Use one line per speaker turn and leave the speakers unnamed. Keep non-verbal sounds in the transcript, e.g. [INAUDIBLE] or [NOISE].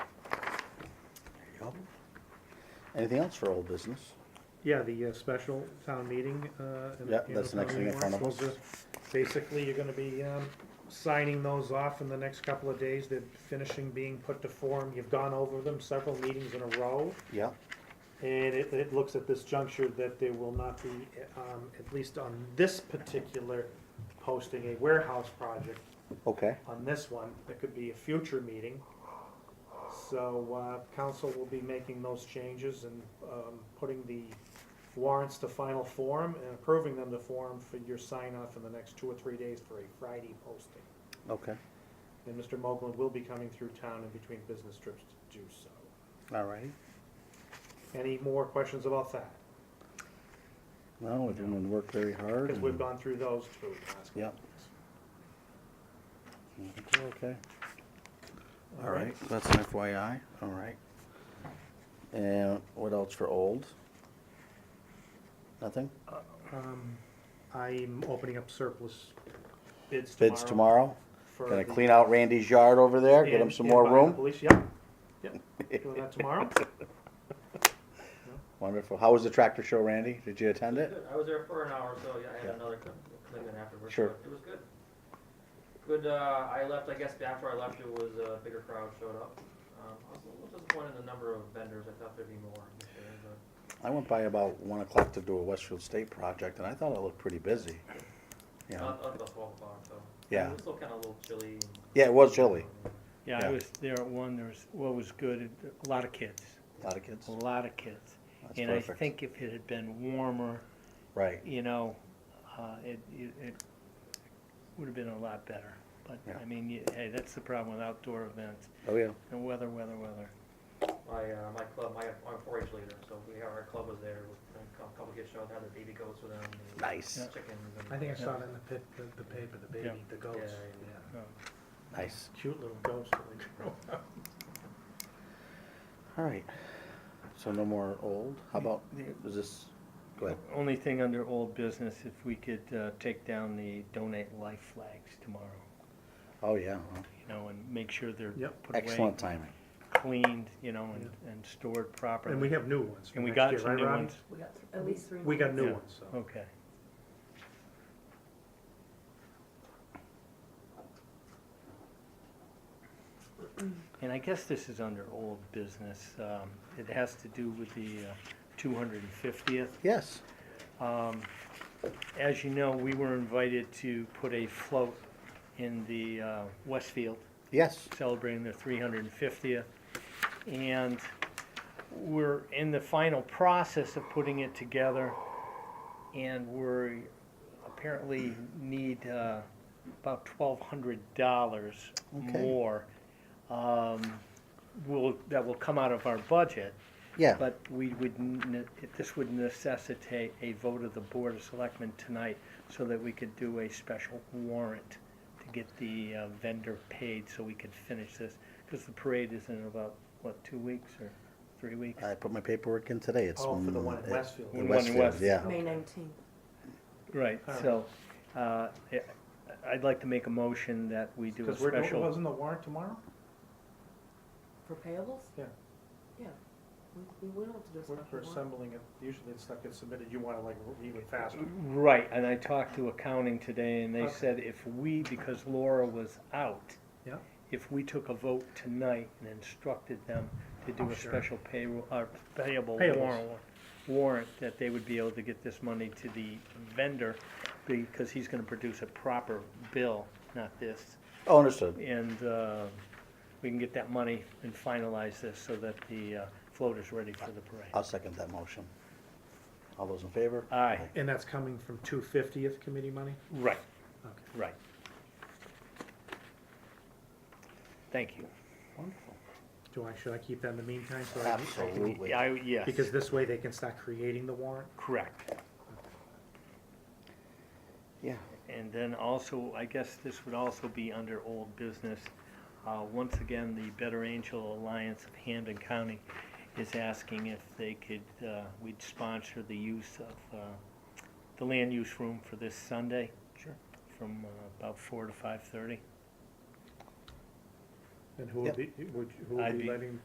Anything else for old business?
Yeah, the uh, special town meeting. uh, and
Yeah,
the
that's the
annual
next
town
thing in
meeting
front of
warrants, those are- Basically, you're gonna be um, signing those off in the next couple of days. They're finishing being put to form. You've gone over them several meetings in a row.
Yeah,
And it, it looks at this juncture that there will not be, um, at least on this particular posting, a warehouse project
okay.
on this one. It could be a future meeting. So, uh, council will be making those changes and, um, putting the warrants to final form and approving them to form for your sign off in the next two or three days for a Friday posting.
Okay,
And Mr. Mogul will be coming through town in between business trips to do so.
all righty.
Any more questions about that?
No, we're doing work very hard.
Because we've
and-
gone through those two last.
Yep. Okay. All right, that's an FYI, all right. And what else for old? Nothing?
Um, I'm opening up surplus bids tomorrow.
Bids tomorrow?
for
Gonna
the-
clean out Randy's yard over there, get him
and-
some
and
more
by the
room?
Police, yep, yep, doing that tomorrow.
[LAUGHS] Wonderful. How was the tractor show, Randy? Did you attend it?
Good. I was there for an hour, so yeah, I
Yeah.
had another co- commitment afterwards.
Sure.
but It was good. Good, uh, I left, I guess after I left, it was a bigger crowd showed up. Um, I was a little disappointed in the number of vendors. I thought there'd be more this year, but
I went by about one o'clock to do a Westfield State project, and I thought it looked pretty busy. You
Uh,
know,
not, not about twelve o'clock, so.
Yeah.
It was still kinda a little chilly. and-
Yeah, it was chilly.
Yeah,
Yeah.
I was there at one, there was, what was good, a lot of kids,
a lot of kids.
a lot of kids.
That's
And I
perfect.
think if it had been warmer,
Right,
you know, uh, it, it, it would have been a lot better. But,
Yeah.
I mean, you- hey, that's the problem with outdoor events,
oh yeah,
and weather, weather, weather.
My, uh, my club, my, I'm four H leader, so we, our club was there with a cou- couple kids showed, had their baby goats with them. and
Nice.
Chickens and.
I think I saw it in the pit, the, the paper, the baby,
Yeah.
the goats,
Yeah,
yeah,
Uh,
nice.
cute little goats that they grow up.
All right, so no more old, how about, is this, go ahead,
Only thing under old business, if we could uh, take down the donate life flags tomorrow,
oh yeah, huh.
you know, and make sure they're
Yep.
put away,
excellent timing,
cleaned, you know, and, and stored properly.
And we have new ones. for
And we
next
got
year,
some
right,
new
Rob?
ones.
We got th- at least three.
We got new
Yeah.
ones, so.
Okay. And I guess this is under old business. Um, It has to do with the uh, two hundred and fiftieth. Um,
yes,
As you know, we were invited to put a float in the uh, Westfield
yes,
celebrating their 350th. And we're in the final process of putting it together, and we're apparently need uh, about $1,200
Okay.
more. Um, will that will come out of our budget,
yeah,
but we would ne- this would necessitate a vote of the Board of Selectmen tonight so that we could do a special warrant to get the uh, vendor paid so we could finish this, because the parade is in about, what, two weeks or three weeks?
I put my paperwork in today, it's.
Oh, for the
on,
one in
uh,
Westfield.
the
The one in
Westfield,
Westfield.
Yeah,
May nineteenth.
Right, so, uh, I- I'd like to make a motion that we do a
Because we're, doing-
special,
wasn't the warrant tomorrow?
For payables?
Yeah.
Yeah. We, we don't have to do a
We're
special
we're
warrant.
assembling it, usually it's stuff gets submitted, you wanna like even faster.
Mm-hmm. right, and I talked to accounting today, and they
Okay.
said if we, because Laura was out,
Yeah.
if we took a vote tonight and instructed them to do
Oh,
a
sure.
special payroll, uh, payable
Payables.
warrant, warrant, that they would be able to get this money to the vendor, because he's gonna produce a proper bill, not this.
oh, understood,
And, uh, we can get that money and finalize this so that the, uh, float is ready for the
I'll
parade.
second that motion. All those in favor?
Aye,
And that's coming from two fiftieth committee money?
right,
Okay.
right. Thank you.
Wonderful.
Do I, should I keep that in the meantime? so I can- I can-
Absolutely.
I, yes,
Because this way they can start creating the warrant?
correct.
Yeah,
And then also, I guess this would also be under old business. Uh, Once again, the Better Angel Alliance of Hampden County is asking if they could, uh, we'd sponsor the use of uh, the land use room for this Sunday.
Sure.
From uh, about four to 5:30.
And who would be, would, who
I'd
would be
be-
letting